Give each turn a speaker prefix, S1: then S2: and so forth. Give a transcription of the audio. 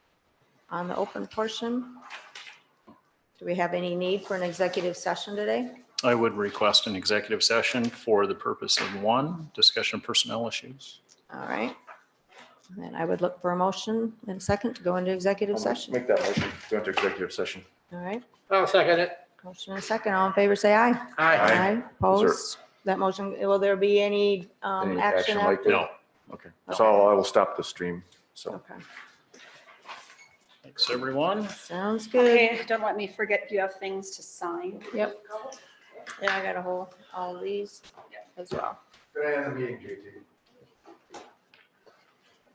S1: on the open portion. Do we have any need for an executive session today?
S2: I would request an executive session for the purpose of one, discussion of personnel issues.
S1: All right. And I would look for a motion and a second to go into executive
S3: I'll
S1: session.
S3: Make that motion, go into executive session.
S1: All right,
S4: I'll second it.
S1: motion and a second. All in favor, say aye.
S4: Aye.
S3: Aye.
S1: Opposed? That motion, will there be any um,
S3: Any
S1: action?
S3: action
S1: after-
S3: like that?
S2: No,
S3: Okay, so I will stop the stream, so.
S1: Okay,
S2: thanks, everyone.
S1: sounds good.
S5: Okay, don't let me forget you have things to sign.
S1: Yep. Yeah, I got a whole, all these as well.
S3: Good end of the meeting, JT.